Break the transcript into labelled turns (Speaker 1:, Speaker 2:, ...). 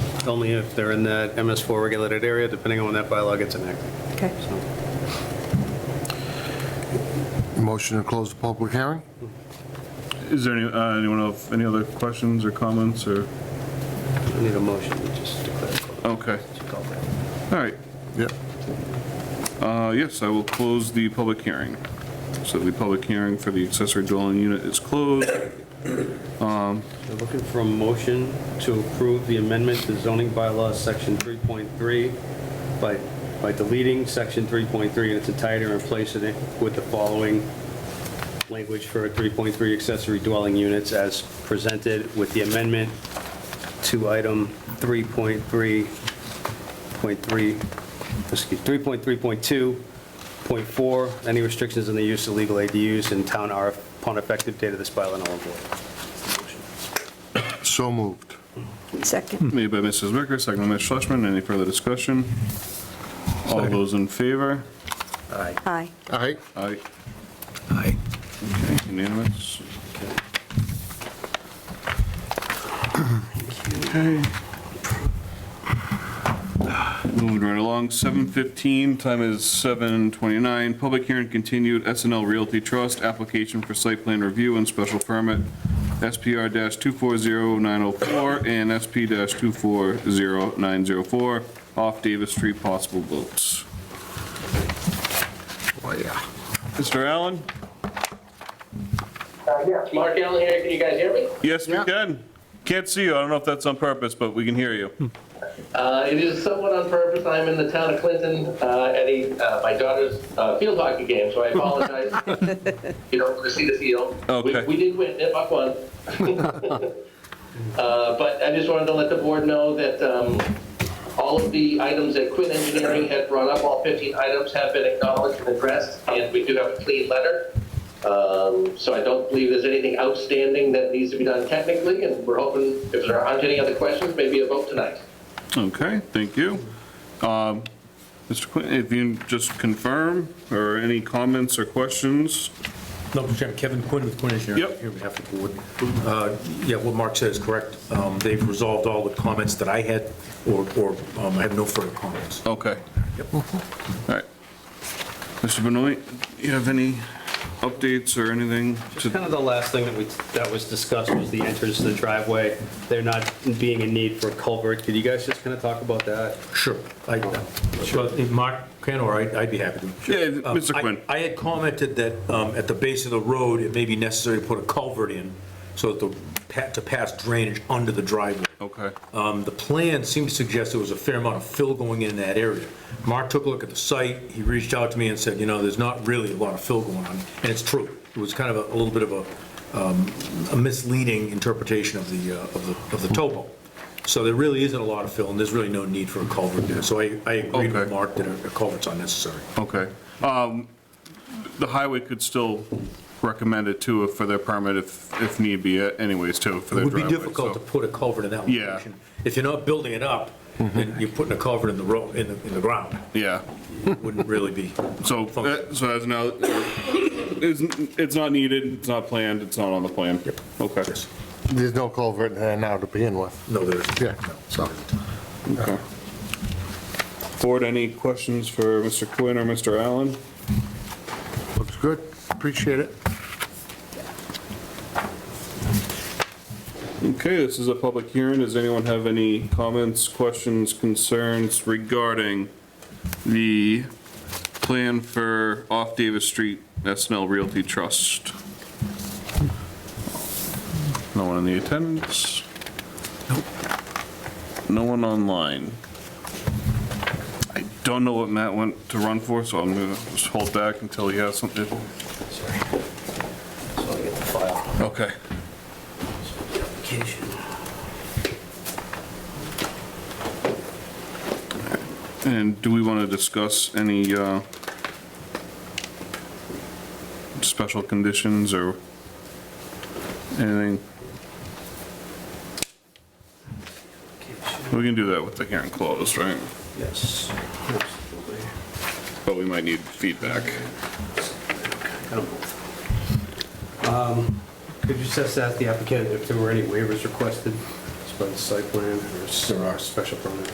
Speaker 1: only if they're in that MS4 regulated area, depending on when that bylaw gets enacted.
Speaker 2: Okay.
Speaker 1: So,
Speaker 3: Motion to close the public hearing?
Speaker 4: Is there any, uh, anyone else, any other questions or comments or,
Speaker 1: I need a motion to just declare. it closed.
Speaker 4: okay,
Speaker 1: Just call that.
Speaker 4: all right.
Speaker 3: Yep.
Speaker 4: Uh, yes, I will close the public hearing. So the public hearing for the accessory dwelling unit is closed.
Speaker 1: We're looking for a motion to approve the amendment to zoning bylaw, section 3.3, by, by deleting section 3.3 in its entirety and replacing it with the following language for 3.3 accessory dwelling units as presented with the amendment to item 3.3.3, excuse, 3.3.2, point 4, any restrictions on the use of legal ADUs in town are upon effective date of this bylaw null and void.
Speaker 3: So moved.
Speaker 2: Second.
Speaker 4: Made by Mrs. Wicker, second by Ms. Schlesman. Any further discussion? All those in favor?
Speaker 1: Aye.
Speaker 2: Aye.
Speaker 3: All right,
Speaker 4: Aye.
Speaker 5: Aye.
Speaker 4: Okay, Unanimous. Okay. Moving right along, 7:15, time is 7:29. Public hearing continued, SNL Realty Trust, application for site plan review and special permit, SPR-240904 and SP-240904, off Davis Street, possible votes.
Speaker 3: oh yeah.
Speaker 4: Mr. Allen?
Speaker 6: Uh, Yes, Mark Allen here, can you guys hear me?
Speaker 4: Yes, we
Speaker 3: Yeah.
Speaker 4: can. Can't see you. I don't know if that's on purpose, but we can hear you.
Speaker 6: Uh, It is somewhat on purpose, I'm in the town of Clinton uh, at a, uh, my daughter's uh, field hockey game, so I apologize. You don't want to see the field. We-
Speaker 4: Okay.
Speaker 6: We did win, it buck one. Uh, But I just wanted to let the board know that um, all of the items that Quinn Engineering had brought up, all 15 items have been acknowledged and addressed, and we do have a clean letter. Um, So I don't believe there's anything outstanding that needs to be done technically, and we're hoping, if there aren't any other questions, maybe a vote tonight.
Speaker 4: Okay, thank you. Um, Mr. Quinn, if you can just confirm, or any comments or questions?
Speaker 5: No, Mr. Chairman, Kevin Quinn with Quinn Engineering.
Speaker 4: Yep.
Speaker 5: Here on behalf of the board. Uh, Yeah, what Mark said is correct. Um, They've resolved all the comments that I had, or or, um, I have no further comments.
Speaker 4: Okay. All right. Mr. Benoit, you have any updates or anything?
Speaker 1: Just
Speaker 4: to-
Speaker 1: kind of the last thing that we, that was discussed was the entrance to the driveway, there not being a need for culvert. Could you guys just kind of talk about that?
Speaker 5: Sure. I- uh, Well, if Mark can, or I- I'd be happy to.
Speaker 4: Yeah,
Speaker 5: Um,
Speaker 4: Mr.
Speaker 5: I-
Speaker 4: Quinn.
Speaker 5: I had commented that um, at the base of the road, it may be necessary to put a culvert in so that the, pa- to pass drainage under the driveway.
Speaker 4: Okay.
Speaker 5: Um, The plan seemed to suggest there was a fair amount of fill going in that area. Mark took a look at the site, he reached out to me and said, you know, there's not really a lot of fill going on, and it's true. It was kind of a a little bit of a um, a misleading interpretation of the, uh, of the, of the topo. So there really isn't a lot of fill, and there's really no need for a culvert there. So I, I agreed with
Speaker 4: Okay.
Speaker 5: Mark that a a culvert's unnecessary.
Speaker 4: Okay. Um, The highway could still recommend it too for their permit if, if need be anyways too, for their
Speaker 5: It would
Speaker 4: driveway.
Speaker 5: be difficult
Speaker 4: so-
Speaker 5: to put a culvert in that
Speaker 4: Yeah. Mm-hmm.
Speaker 5: location. If you're not building it up, then you're putting a culvert in the road, in the, in the ground.
Speaker 4: Yeah.
Speaker 5: It Wouldn't really be.
Speaker 4: So,
Speaker 5: Function.
Speaker 4: uh, so as now, it's, it's not needed, it's not planned, it's not on the plan? Yep. Okay.
Speaker 5: Yes.
Speaker 3: There's no culvert there now to begin with.
Speaker 5: No, there isn't.
Speaker 3: Yeah,
Speaker 5: No.
Speaker 3: so.
Speaker 4: Okay. Board, any questions for Mr. Quinn or Mr. Allen?
Speaker 3: Looks good. Appreciate it.
Speaker 4: Okay, this is a public hearing. Does anyone have any comments, questions, concerns regarding the plan for off Davis Street SNL Realty Trust? No one in the attendance? No one online. I don't know what Matt went to run for, so I'm gonna just hold back until he has something.
Speaker 1: Sorry. So I get the file,
Speaker 4: Okay.
Speaker 1: the application.
Speaker 4: And do we want to discuss any uh, special conditions or anything? We can do that with the hearing closed, right?
Speaker 1: Yes. absolutely.
Speaker 4: But we might need feedback.
Speaker 1: Kind of both. Um, Could you assess that the applicant if there were any waivers requested site plan or s- or our special permit.